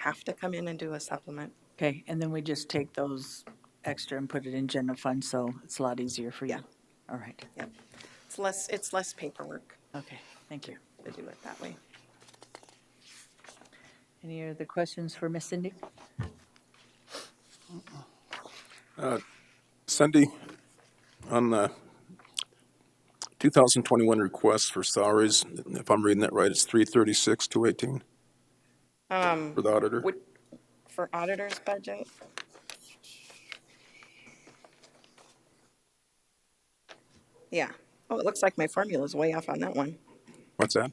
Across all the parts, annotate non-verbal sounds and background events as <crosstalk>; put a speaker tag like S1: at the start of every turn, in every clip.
S1: have to come in and do a supplement.
S2: Okay, and then we just take those extra and put it in general fund, so it's a lot easier for you. All right,
S1: Yep. It's less, it's less paperwork
S2: okay, thank you.
S1: to do it that way.
S2: Any other questions for Miss Cindy?
S3: Cindy, on uh, the 2021 request for salaries, if I'm reading that right, it's 336, 218?
S2: Um,
S3: For the auditor?
S1: Would, for auditor's budget? Yeah. Oh, it looks like my formula's way off on that one.
S3: What's that?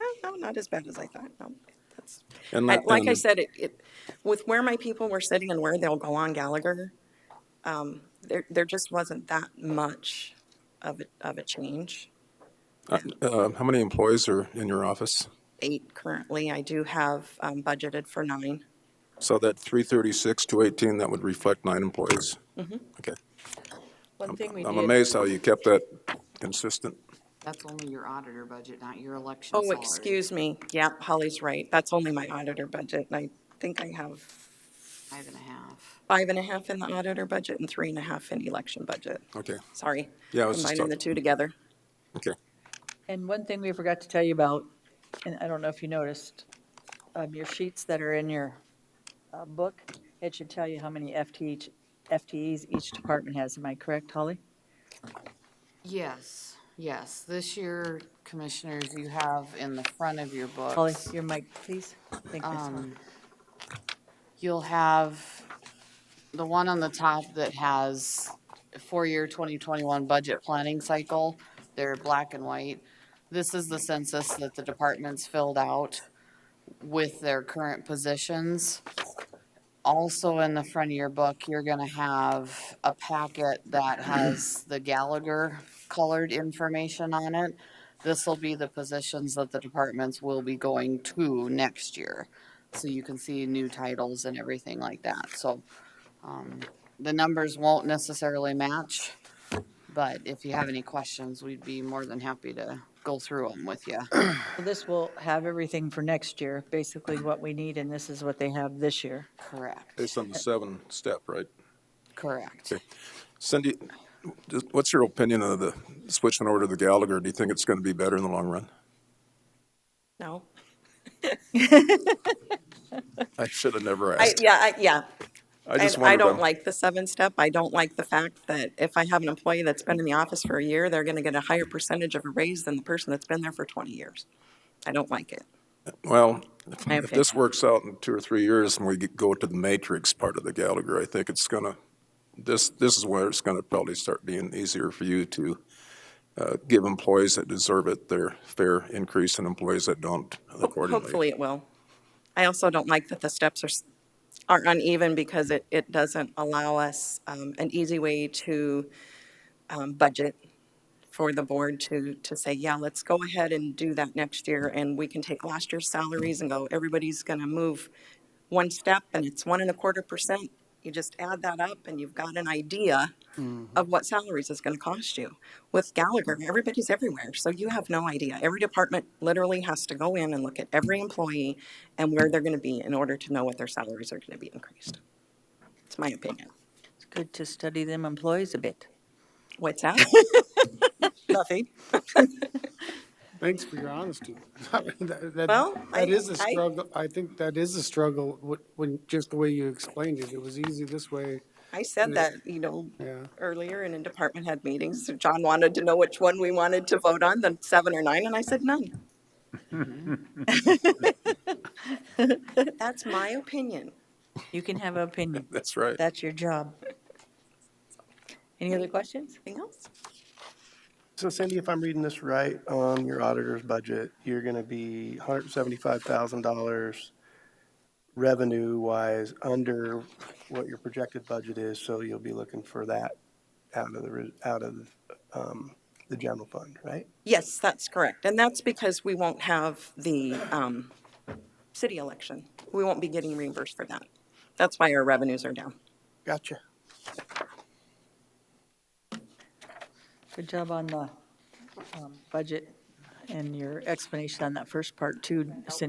S1: Oh, No, not as bad as I thought. No, that's,
S3: And
S1: I-
S3: that-
S1: like I
S3: and-
S1: said, it, it, with where my people were sitting and where they'll go on Gallagher, um, there, there just wasn't that much of a, of a change.
S3: Uh, How many employees are in your office?
S1: Eight currently. I do have, um, budgeted for nine.
S3: So that 336, 218, that would reflect nine employees? Okay.
S2: Mm-hmm. One thing we
S3: I'm amazed how you kept that consistent.
S4: That's only your auditor budget, not your election
S1: Oh,
S4: salary.
S1: excuse me. Yep, Holly's right. That's only my auditor budget. And I think I have
S4: Five and a half.
S1: five and a half in the auditor budget and three and a half in election budget.
S3: Okay,
S1: Sorry.
S3: Yeah, I was just
S1: Combining the
S3: talk-
S1: two together.
S3: okay.
S2: And one thing we forgot to tell you about, and I don't know if you noticed, um, your sheets that are in your, uh, book, it should tell you how many FTE, FTEs each department has. Am I correct, Holly?
S4: Yes, yes. This year, commissioners, you have in the front of your
S2: Holly,
S4: books,
S2: your mic, please. Thank you, Miss Holly.
S4: um, you'll have the one on the top that has four-year 2021 budget planning cycle. They're black and white. This is the census that the departments filled out with their current positions. Also in the front of your book, you're gonna have a packet that has the Gallagher colored information on it. This'll be the positions that the departments will be going to next year. So you can see new titles and everything like that, so, um, the numbers won't necessarily match. But if you have any questions, we'd be more than happy to go through them with you.
S2: So This will have everything for next year, basically what we need, and this is what they have this year.
S4: Correct,
S3: Based on the seven step, right?
S4: correct.
S3: Cindy, just- what's your opinion of the switching over to the Gallagher? Do you think it's going to be better in the long run?
S1: No?
S3: I should have never
S1: I,
S3: asked.
S1: yeah, I, yeah.
S3: I
S1: And
S3: just
S1: I
S3: wondered.
S1: don't
S3: um,
S1: like the seven step. I don't like the fact that if I have an employee that's been in the office for a year, they're gonna get a higher percentage of a raise than the person that's been there for twenty years. I don't like it.
S3: Well, if-
S1: I
S3: if
S1: think-
S3: this works out in two or three years and we get- go to the matrix part of the Gallagher, I think it's going to, this, this is where it's going to probably start being easier for you to uh, give employees that deserve it their fair increase and employees that don't accordingly.
S1: Hopefully it will. I also don't like that the steps are, s- are uneven because it, it doesn't allow us, um, an easy way to, um, budget for the board to, to say, yeah, let's go ahead and do that next year and we can take last year's salaries and go, everybody's gonna move one step and it's one and a quarter percent. You just add that up and you've got an idea of what salaries is gonna cost you. With Gallagher, everybody's everywhere, so you have no idea. Every department literally has to go in and look at every employee and where they're gonna be in order to know what their salaries are gonna be increased. It's my opinion.
S2: It's good to study them employees a bit.
S1: What's that? <laughs> Nothing.
S5: Thanks for your honesty. <laughs> That- that-
S1: Well,
S5: That
S1: I-
S5: is a
S1: I-
S5: struggle, I think that is a struggle, wh- when, just the way you explained it, it was easy this way.
S1: I said that, you know,
S5: Yeah.
S1: earlier in a department head meetings, John wanted to know which one we wanted to vote on, the seven or nine, and I said
S2: <laughs>
S1: none. That's my opinion.
S2: You can have an opinion.
S3: That's right.
S2: That's your job. Any other questions?
S1: Anything else?
S6: So Cindy, if I'm reading this right, on your auditor's budget, you're gonna be hundred and seventy-five thousand dollars revenue-wise under what your projected budget is, so you'll be looking for that out of the, re- out of, um, the general fund, right?
S1: Yes, that's correct. And that's because we won't have the um, city election. We won't be getting reimbursed for that. That's why our revenues are down.
S6: Gotcha.
S2: Good job on the um, budget and your explanation on that first part too, Cindy.